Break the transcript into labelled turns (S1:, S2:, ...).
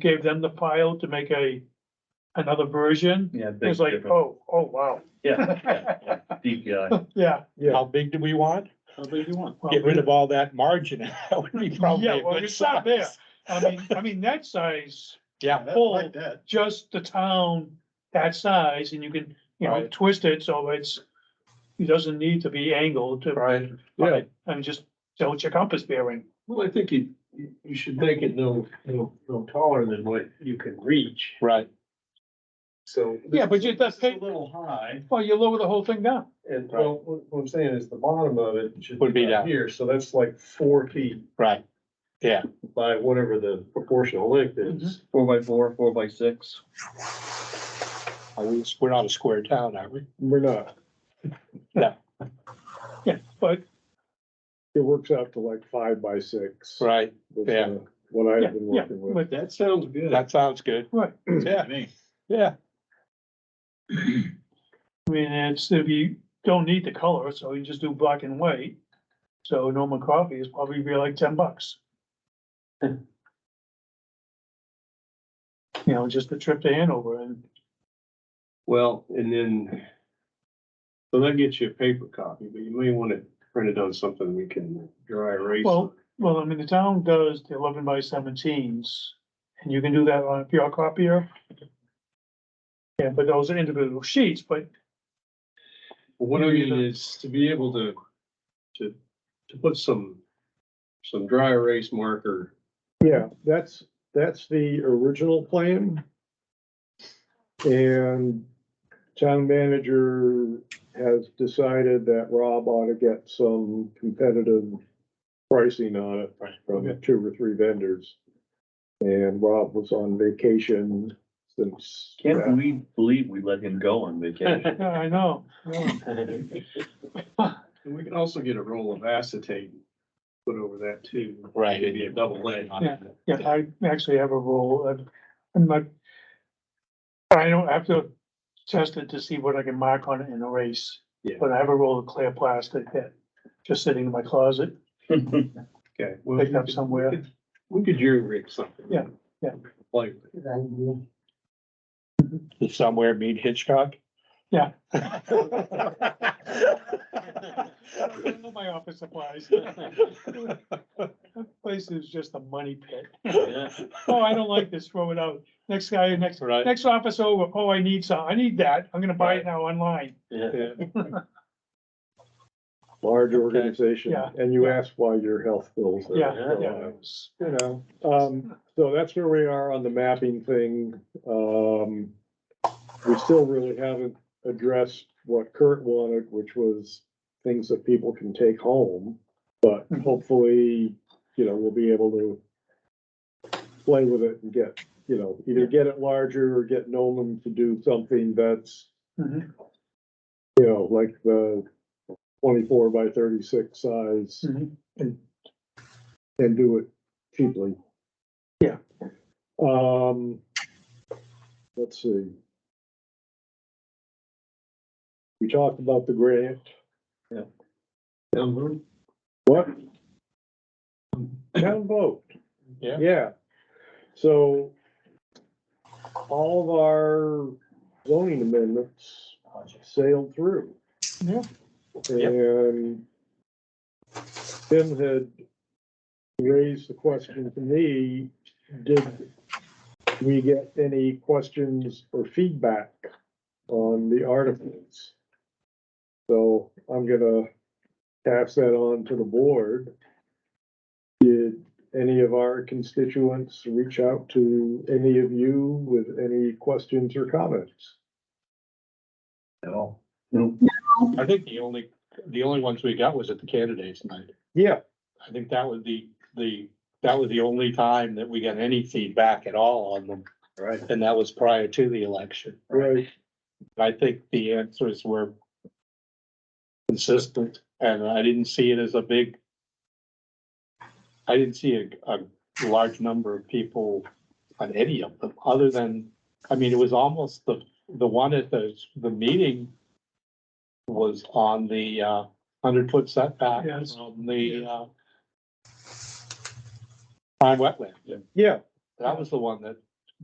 S1: gave them the file to make a, another version.
S2: Yeah.
S1: It was
S2: big
S1: like,
S2: difference.
S1: oh, oh, wow,
S2: Yeah, yeah, yeah, DPI.
S1: yeah.
S3: How big do we want?
S1: How big do you want?
S3: Get rid of all that margin. That would be probably
S1: Yeah,
S3: a
S1: well,
S3: good
S1: it's not there.
S3: size.
S1: I mean, I mean, that size,
S3: Yeah,
S1: full, just the town, that size, and you can, you know,
S3: Right.
S1: twist it, so it's, it doesn't need to be angled to,
S3: right,
S1: right, and just, so it's your compass bearing.
S4: Well, I think you, you- you should make it no, no, no taller than what you can reach,
S3: right.
S4: so.
S1: Yeah, but you- that's-
S4: It's A little high,
S1: Well, you lower the whole thing down.
S4: and well, what what I'm saying is the bottom of it should.
S3: Would be
S4: about
S3: down.
S4: Here, so that's like four feet
S3: Right,
S4: by whatever the proportional length
S1: Mm-hmm.
S4: is.
S2: Four by four, four by six.
S3: Are we- we're not a square town, are we?
S4: We're not,
S1: But
S4: it works out to like five by six. uh,
S3: Right, yeah.
S4: What
S1: Yeah, yeah, but
S4: That sounds good.
S3: that sounds good.
S1: Right.
S3: Yeah, yeah,
S1: I mean, it's, if you don't need the color, so you just do black and white. So Norman coffee is probably be like ten bucks. You know, just a trip to Hanover and,
S4: Well, and then, so that gets you a paper copy, but you may want to print it on something we can dry erase.
S1: well, well, I mean, the town does the eleven by seventeens. And you can do that on a PR copier. Yeah, but those are individual sheets, but
S4: What
S1: You
S4: I
S1: know, you
S4: mean is to be able to, to, to put some, some dry erase marker.
S5: Yeah, that's, that's the original plan. And town manager has decided that Rob ought to get some competitive pricing on it
S1: Okay.
S5: from two or three vendors. And Rob was on vacation since.
S2: Can't we believe we let him go on vacation?
S1: yeah, I know. yeah.
S4: And we can also get a roll of acetate, put over that too.
S3: right.
S4: Maybe a double A.
S1: Yeah, I actually have a rule, I'm- I'm not. I don't have to test it to see what I can mark on it in a race.
S4: Yeah.
S1: But I have a roll of clear plastic that, just sitting in my closet,
S4: Okay. well,
S1: picked
S4: we
S1: up
S4: could-
S1: somewhere.
S4: we could- We could jury rig something.
S1: Yeah, yeah.
S4: Like,
S3: Somewhere meet Hitchcock.
S1: Yeah.
S3: Right,
S1: My office supplies. That Place is just a money pit. Oh, I don't like this, throw it out. Next guy, next,
S3: Right.
S1: next office over, oh, I need some, I need that, I'm gonna buy it now online.
S3: yeah,
S5: Large organization,
S1: Yeah.
S5: and you ask why your health bills. are
S1: Yeah,
S5: going
S1: yeah.
S5: up. you know, um, so that's where we are on the mapping thing. Um, we still really haven't addressed what Kurt wanted, which was things that people can take home. But hopefully, you know, we'll be able to play with it and get, you know, either get it larger or get Nolan to do something that's,
S1: Mhm,
S5: you know, like the twenty-four by thirty-six size
S1: mhm.
S5: and do it cheaply.
S1: Yeah.
S5: Um, let's see. We talked about the grant.
S4: down the-
S5: What? Town vote.
S3: Yeah.
S5: Yeah. So all of our zoning amendments sailed through.
S1: Yeah.
S5: And Tim had raised the question to me, did we get any questions or feedback on the articles? So I'm gonna pass that on to the board. Did any of our constituents reach out to any of you with any questions or comments?
S2: No.
S3: I think the only, the only ones we got was at the candidates night.
S5: Yeah,
S3: I think that was the, the, that was the only time that we got any feedback at all on them,
S2: Right.
S3: and that was prior to the election.
S5: right,
S3: I think the answers were consistent, and I didn't see it as a big, I didn't see a, a large number of people on any of them, other than, I mean, it was almost the, the one at the, the meeting was on the, uh, hundred foot setback
S1: Yes.
S3: on the, uh, prime wetland.
S5: yeah,
S3: That was the one that